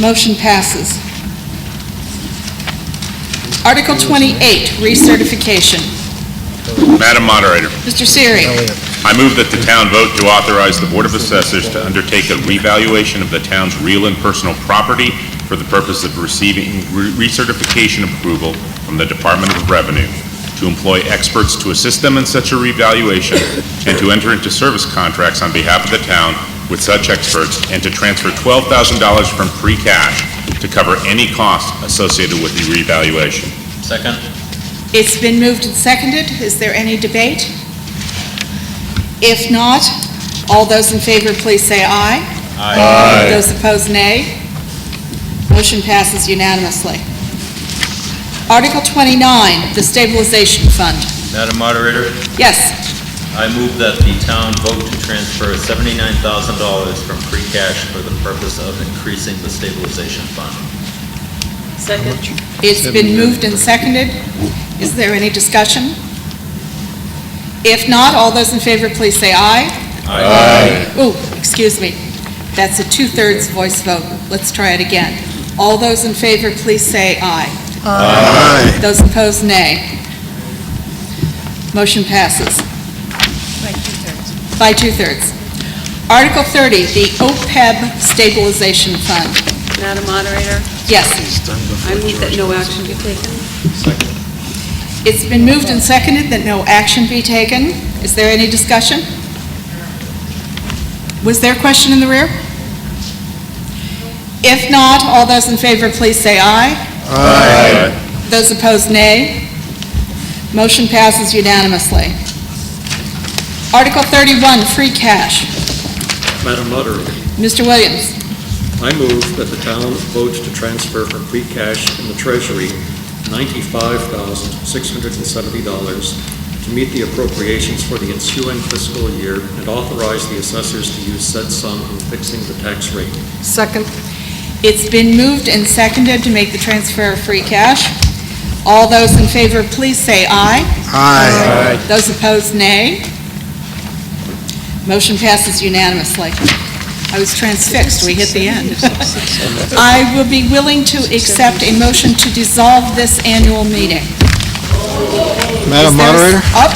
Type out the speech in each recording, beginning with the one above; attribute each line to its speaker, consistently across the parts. Speaker 1: Motion passes. Article 28, recertification.
Speaker 2: Madam Moderator,
Speaker 1: Mr. Siri.
Speaker 2: I move that the town vote to authorize the Board of Assessors to undertake a revaluation of the town's real and personal property for the purpose of receiving re- recertification approval from the Department of Revenue, to employ experts to assist them in such a revaluation, and to enter into service contracts on behalf of the town with such experts, and to transfer $12,000 from free cash to cover any costs associated with the revaluation.
Speaker 3: Second.
Speaker 1: It's been moved and seconded. Is there any debate? If not, all those in favor, please say aye. Aye. Those opposed, nay. Motion passes unanimously. Article 29, the stabilization fund.
Speaker 3: Madam Moderator,
Speaker 1: Yes,
Speaker 3: I move that the town vote to transfer seventy-nine thousand dollars from free cash for the purpose of increasing the stabilization fund.
Speaker 1: it's been moved and seconded. Is there any discussion? If not, all those in favor, please say aye. Ooh, excuse me. That's a two-thirds voice vote. Let's try it again. All those in favor, please say aye. Aye. Those opposed, nay. Motion passes. By two-thirds. Article 30, the OPEB Stabilization Fund.
Speaker 4: Madam Moderator,
Speaker 1: Yes,
Speaker 4: I move that no action be taken.
Speaker 1: it's been moved and seconded that no action be taken. Is there any discussion? Was there a question in the rear? If not, all those in favor, please say aye. Those opposed, nay. Motion passes unanimously. Article 31, free cash.
Speaker 5: Madam Moderator,
Speaker 1: Mr. Williams,
Speaker 5: I move that the town vote to transfer from free cash in the treasury $95,670 to meet the appropriations for the ensuing fiscal year and authorize the assessors to use said sum in fixing the tax rate.
Speaker 4: Second.
Speaker 1: it's been moved and seconded to make the transfer of free cash. All those in favor, please say aye. Aye. Those opposed, nay. Motion passes unanimously. I was transfixed, we hit the end. I will be willing to accept a motion to dissolve this annual meeting. Is there
Speaker 6: Madam
Speaker 1: a-
Speaker 6: Moderator,
Speaker 1: Up,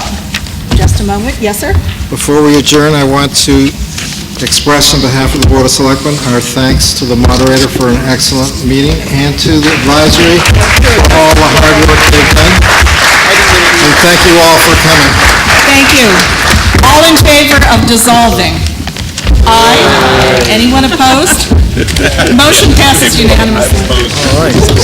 Speaker 1: just a moment, yes, sir?
Speaker 6: before we adjourn, I want to express on behalf of the Board of Selectmen our thanks to the moderator for an excellent meeting and to the advisory for all the hard work they've done. And thank you all for coming.
Speaker 1: Thank you. All in favor of dissolving? Aye. Anyone opposed? Motion passes unanimously.